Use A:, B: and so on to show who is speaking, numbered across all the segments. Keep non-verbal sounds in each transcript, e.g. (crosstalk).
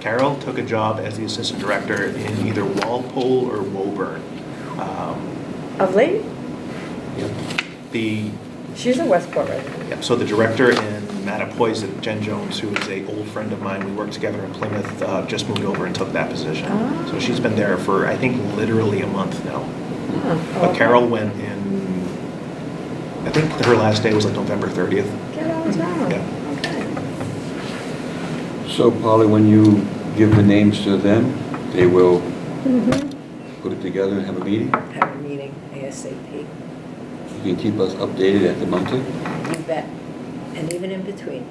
A: Carroll took a job as the assistant director in either Walpole or Woburn. Um,
B: Of late?
A: The,
B: She's a Westport resident.
A: yeah, so the director in Mattapoisett, Jen Jones, who is a old friend of mine, we worked together in Plymouth, uh, just moved over and took that position.
B: Ah.
A: So she's been there for, I think, literally a month now.
C: Oh,
A: But Carol went in, I think her last day was like November 30th.
B: Carol's out.
A: Yeah.
B: Okay.
D: So Polly, when you give the names to them, they will
B: Mhm.
C: Mm-hmm.
D: put it together and have a meeting?
C: Have a meeting ASAP.
D: You can keep us updated at the monthly?
C: You bet. And even in (laughs) between.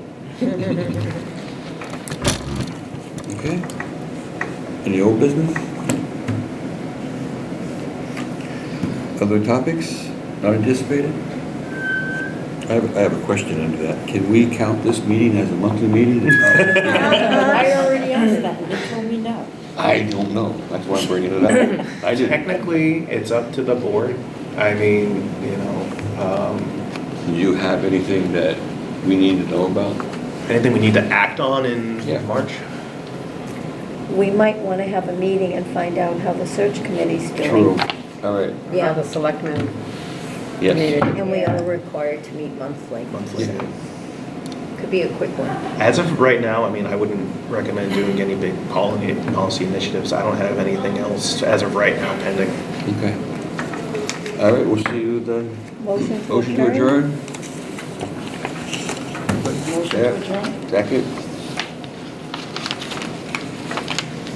D: Okay. Any old business? Other topics not anticipated? I have, I have a question under that. Can we count this meeting as a monthly meeting?
C: I already
B: answered
C: that, you told me no.
D: I don't know. That's why I'm bringing it up. I didn't.
A: Technically, it's up to the board. I mean, you know, um,
D: Do you have anything that we need to know about?
A: Anything we need to act on in
D: Yeah.
A: March?
B: We might want to have a meeting and find out how the search committee's
D: True.
B: doing.
D: All right.
C: Yeah.
E: Yeah, the selectmen.
D: Yes.
E: Needed.
C: And we are required to meet monthly.
A: Monthly.
D: Yeah.
C: Could be a quick one.
A: As of right now, I mean, I wouldn't recommend doing any big policy, policy initiatives. I don't have anything else as of right now pending.
D: Okay. All right, we'll see you then.
B: Motion to
D: Motion to
B: adjourn?
D: adjourn? Yeah, Second?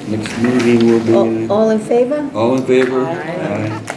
D: Next meeting will
B: All
D: be,
B: Oh, all in favor?
D: all in favor?
E: Aye.